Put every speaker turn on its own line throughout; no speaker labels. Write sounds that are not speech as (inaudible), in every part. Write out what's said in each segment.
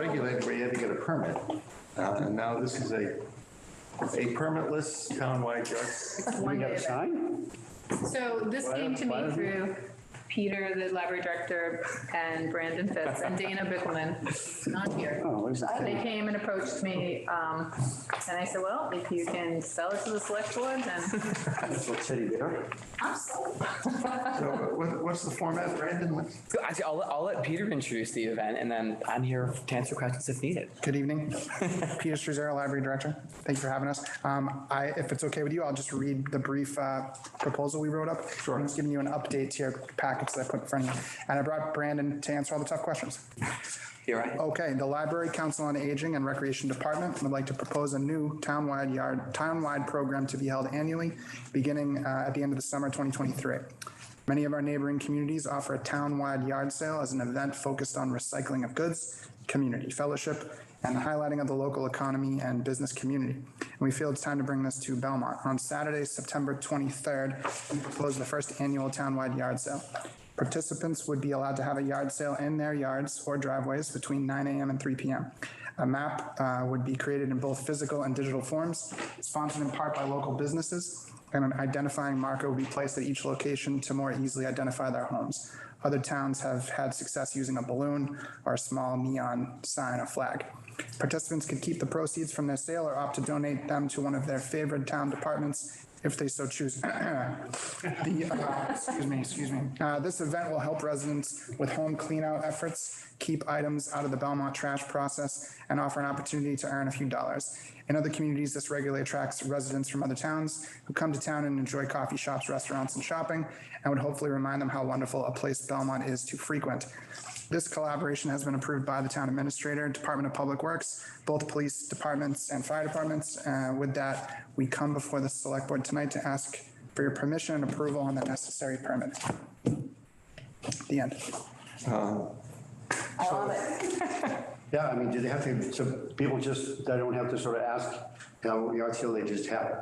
regulated where you had to get a permit. Uh, And now this is a, a permitless townwide yard.
It's
We
one
got
day
a
event.
sign?
So this
Why-
came to
why
me
don't we-
through Peter, the library director, and Brandon Fitz and Dana Bickelman, not here.
Oh, there's that
They
thing.
came and approached me, um, and I said, well, if you can sell it to the select board, then
Little teddy bear.
I'm sold.
So uh, what- what's the format, Brandon? What's-
So actually, I'll, I'll let Peter introduce the event and then I'm here to answer questions if needed.
Good evening. Peter Struzera, Library Director. Thank you for having us. Um, I, if it's okay with you, I'll just read the brief uh, proposal we wrote up. Sure. I'm just giving you an update to your packets that I put in front of you. And I brought Brandon to answer all the tough questions.
You're right.
Okay, the Library Council on Aging and Recreation Department would like to propose a new townwide yard, townwide program to be held annually, beginning uh, at the end of the summer 2023. Many of our neighboring communities offer a townwide yard sale as an event focused on recycling of goods, community fellowship, and the highlighting of the local economy and business community. And we feel it's time to bring this to Belmont. On Saturday, September 23rd, we propose the first annual townwide yard sale. Participants would be allowed to have a yard sale in their yards or driveways between 9 AM and 3 PM. A map uh, would be created in both physical and digital forms, sponsored in part by local businesses, and an identifying marker would be placed at each location to more easily identify their homes. Other towns have had success using a balloon or a small neon sign or flag. Participants could keep the proceeds from their sale or opt to donate them to one of their favorite town departments if they so choose. (clears throat) The, uh, excuse me, excuse me. Uh, This event will help residents with home cleanout efforts, keep items out of the Belmont trash process, and offer an opportunity to earn a few dollars. In other communities, this regularly attracts residents from other towns who come to town and enjoy coffee shops, restaurants, and shopping, and would hopefully remind them how wonderful a place Belmont is to frequent. This collaboration has been approved by the town administrator, Department of Public Works, both police departments and fire departments. Uh, With that, we come before the select board tonight to ask for your permission and approval on the necessary permit. The end.
I love it. Yeah, I mean, do they have to, so people just, they don't have to sort of ask, you know, yard sale, they just have it?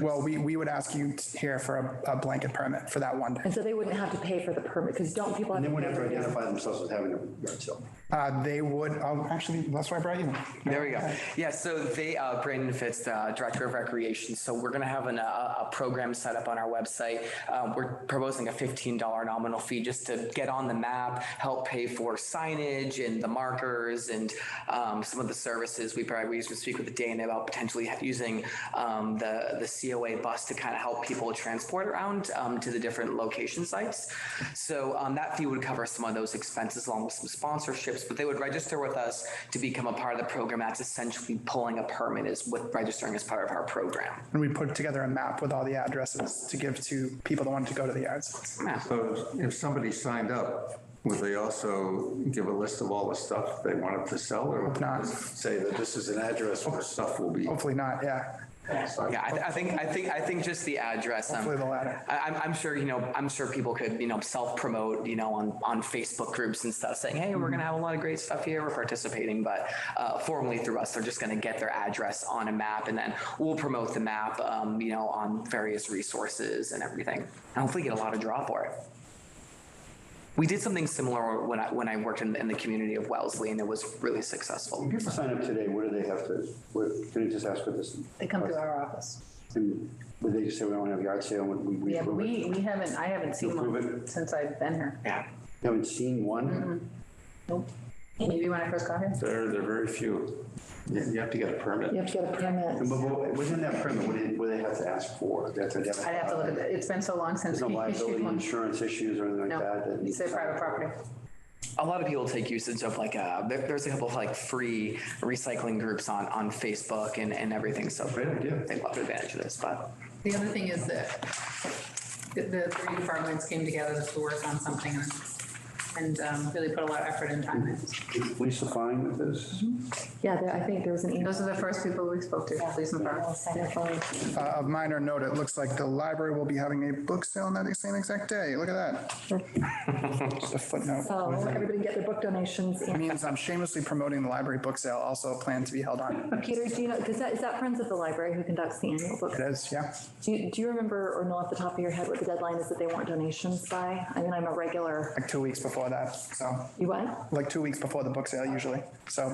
Well, we, we would ask you t- here for a- a blanket permit for that one day.
And so they wouldn't have to pay for the permit, because don't people have?
And they wouldn't have to
to-
identify themselves as having a yard sale.
Uh, They would, oh, actually, that's why I brought you.
There we go. Yeah, so they, uh, Brandon Fitz, uh, Director of Recreation, so we're gonna have an, uh, a program set up on our website. Uh, We're proposing a $15 nominal fee just to get on the map, help pay for signage and the markers and um, some of the services. We probably, we used to speak with Dana about potentially using um, the, the COA bus to kind of help people transport around um, to the different location sites. So um, that fee would cover some of those expenses along with some sponsorships, but they would register with us to become a part of the program. That's essentially pulling a permit is with registering as part of our program.
And we put together a map with all the addresses to give to people that wanted to go to the yards.
So if somebody signed up, would they also give a list of all the stuff they wanted to sell or would
Not-
they say that this is an address where stuff will be?
Hopefully not, yeah.
Yeah, I, th- I think, I think, I think just the address. um,
Hopefully the latter.
I, I'm, I'm sure, you know, I'm sure people could, you know, self-promote, you know, on, on Facebook groups and stuff saying, hey, we're gonna have a lot of great stuff here, we're participating, but uh, formally through us, they're just gonna get their address on a map and then we'll promote the map, um, you know, on various resources and everything. And hopefully get a lot of draw for it. We did something similar when I, when I worked in, in the community of Wellesley and it was really successful.
People sign up today, what do they have to, what, can I just ask for this?
They come to our office.
And Would they just say we don't have yard sale? Would we- we
Yeah, but
approve it?
we, we haven't, I haven't seen
Approve
one since I've been here.
Yeah.
You Haven't seen one?
Nope. Maybe when I first got here.
There, there are very few.
Mm-hmm.
You you have to get a
You
permit.
have to get a permit.
And but- but Within that permit, what do they- what do they have to ask for? They have to identify-
I'd have to look at it. It's been so long since
There's no
(laughs) we issued
liability
one.
insurance issues or anything like that?
No,
that-
it's a private property.
a lot of people take usage of like uh there, there's a couple of like free recycling groups on on facebook and and everything so
Great idea.
they love advantage of this but
The other thing is that the- the three departments came together to work on something and- and um, really put a lot of effort and time in.
Did Lisa Fine with this?
Yeah, there- I think there was an email.
Those are the first people we spoke to, police and fire.
Uh, Of minor note, it looks like the library will be having a book sale on that same exact day. Look at that. Just a footnote.
So everybody get their book donations. and-
Means I'm shamelessly promoting the library book sale, also planned to be held on.
Peter, do you know, because that, is that Friends of the Library who conducts the annual book?
It is, yeah.
Do you, do you remember or know off the top of your head what the deadline is that they want donations by? I mean, I'm a regular,
Like two weeks before that, so,
you what?
like two weeks before the book sale usually. So